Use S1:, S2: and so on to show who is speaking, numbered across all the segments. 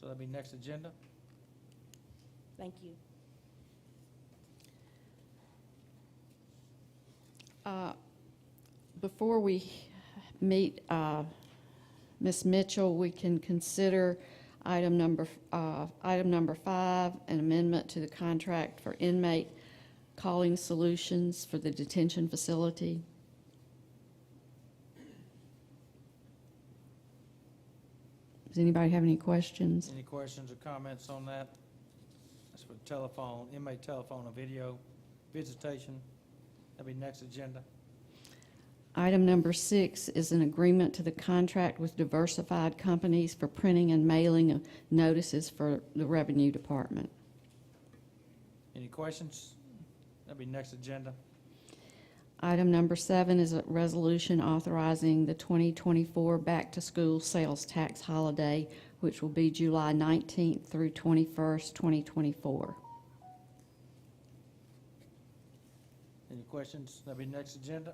S1: That'll be next agenda.
S2: Thank you.
S3: Uh, Before we meet uh, Ms. Mitchell, we can consider item number, uh, item number five, an amendment to the contract for inmate calling solutions for the detention facility. Does anybody have any questions?
S1: Any questions or comments on that? That's for telephone, inmate telephone and video visitation. That'll be next agenda.
S3: Item number six is an agreement to the contract with diversified companies for printing and mailing of notices for the Revenue Department.
S1: Any questions? That'll be next agenda.
S3: Item number seven is a resolution authorizing the 2024 back-to-school sales tax holiday, which will be July 19th through 21st, 2024.
S1: Any questions? That'll be next agenda.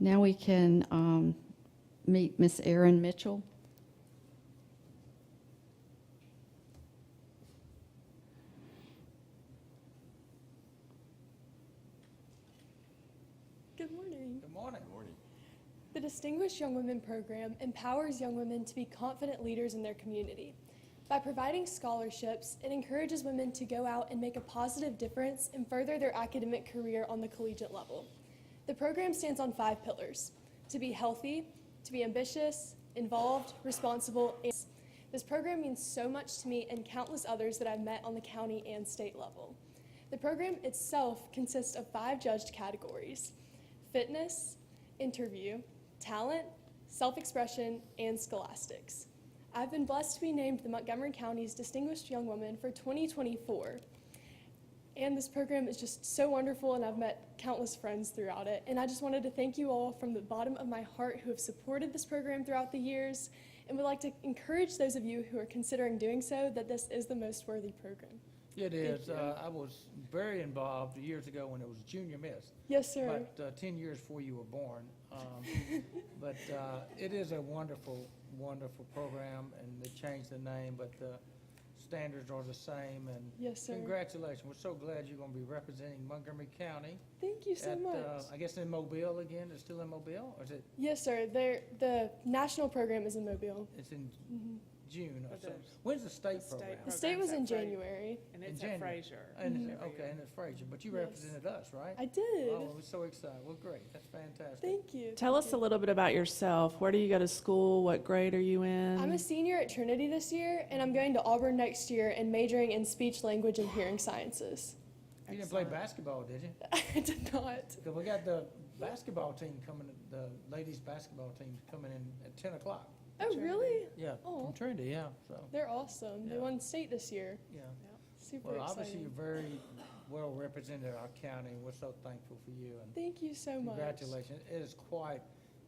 S3: Now we can um, meet Ms. Erin Mitchell.
S4: Good morning.
S1: Good morning.
S4: The Distinguished Young Women Program empowers young women to be confident leaders in their community. By providing scholarships, it encourages women to go out and make a positive difference and further their academic career on the collegiate level. The program stands on five pillars to be healthy, to be ambitious, involved, responsible, and this program means so much to me and countless others that I've met on the county and state level. The program itself consists of five judged categories fitness, interview, talent, self expression, and scholastics. I've been blessed to be named the Montgomery County's Distinguished Young Woman for 2024. And this program is just so wonderful, and I've met countless friends throughout it. And I just wanted to thank you all from the bottom of my heart who have supported this program throughout the years, and would like to encourage those of you who are considering doing so that this is the most worthy program.
S1: It
S4: Thank
S1: is.
S4: you.
S1: Uh, I was very involved years ago when it was junior miss.
S4: Yes, sir.
S1: About uh, 10 years before you were born. Um, But uh, it is a wonderful, wonderful program, and they changed the name, but the standards are the same, and
S4: yes, sir.
S1: congratulations. We're so glad you're going to be representing Montgomery County.
S4: Thank you so
S1: at,
S4: much.
S1: uh, I guess in Mobile again, it's still in Mobile, or is it,
S4: yes, sir. There, the national program is in Mobile.
S1: it's in
S4: Mhm.
S1: June or
S5: But
S1: something?
S5: there's-
S1: When's the state
S5: The state
S1: program?
S4: The
S5: program.
S4: state was in
S5: Programs at Fra-
S4: January.
S5: And
S1: In
S5: it's
S1: January.
S5: at Fraser.
S1: And,
S5: every
S1: okay,
S5: year.
S1: and it's Frazier, but you
S4: Mm-hmm. Yes.
S1: represented us, right?
S4: I did.
S1: Oh, we're so excited. Well, great. That's fantastic.
S4: Thank you.
S5: Tell
S4: Thank
S5: us
S4: you.
S5: a little bit about yourself. Where do you go to school? What grade are you in?
S4: I'm a senior at Trinity this year, and I'm going to Auburn next year and majoring in speech, language, and hearing sciences.
S1: You didn't play
S5: Excellent.
S1: basketball, did you?
S4: I did not.
S1: 'Cause we got the basketball team coming, the ladies' basketball team coming in at ten o'clock.
S4: Oh,
S5: Trinity.
S4: really?
S1: Yeah,
S4: Oh.
S1: from Trinity, yeah, so,
S4: They're awesome. They
S1: Yeah.
S4: won state this year.
S1: yeah.
S4: Super
S1: Well, obviously, you're
S4: exciting.
S1: very well represented our county, and we're so thankful for you, and
S4: Thank you so much.
S1: Congratulations. It is quite,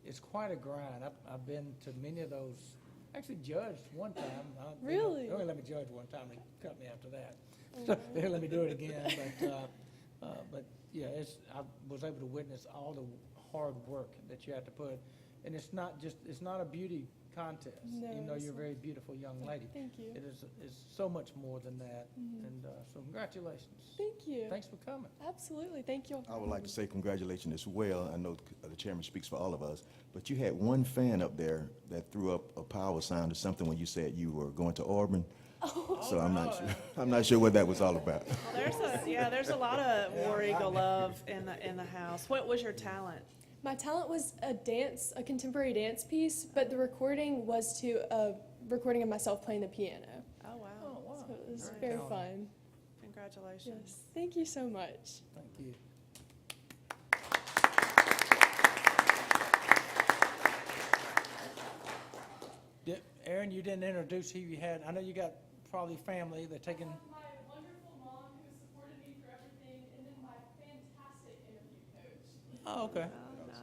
S1: it's quite a grind. I've, I've been to many of those, actually judged one time. I don't think-
S4: Really?
S1: They only let me judge one time. They cut me after that.
S4: Oh,
S1: So
S4: wow.
S1: they let me do it again. But, uh, uh, but yeah, it's, I was able to witness all the hard work that you have to put. And it's not just, it's not a beauty contest, even
S4: No,
S1: though
S4: it's
S1: you're a
S4: not.
S1: very beautiful young lady.
S4: Thank you.
S1: It is, it's so much more than that.
S4: Mhm.
S1: And, uh, so congratulations.
S4: Thank you.
S1: Thanks for coming.
S4: Absolutely. Thank you. all for
S6: I would like
S4: having
S6: to
S4: me.
S6: say congratulations as well. I know uh, the chairman speaks for all of us, but you had one fan up there that threw up a power sign or something when you said you were going to Auburn. So I'm not sure, I'm not sure what that was all about.
S5: There's a, yeah, there's a lot of War Eagle love in the, in the house. What was your talent?
S4: My talent was a dance, a contemporary dance piece, but the recording was to a recording of myself playing the piano.
S5: Oh,
S1: Oh,
S5: wow.
S1: wow.
S4: So it was
S5: Very
S1: talented.
S4: very fun.
S5: Congratulations.
S4: Yes. Thank you so much.
S1: Thank you. Did- Aaron, you didn't introduce who you had. I know you got probably family, they're taking,
S4: my wonderful mom who supported me for everything, and then my fantastic interview coach.
S1: oh, okay.
S5: Oh, nice.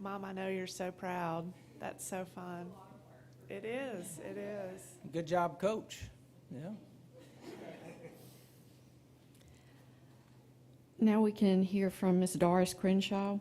S5: Mom, I know you're so proud. That's so fun. It is, it is.
S1: Good job, coach. Yeah.
S3: Now we can hear from Ms. Doris Crenshaw.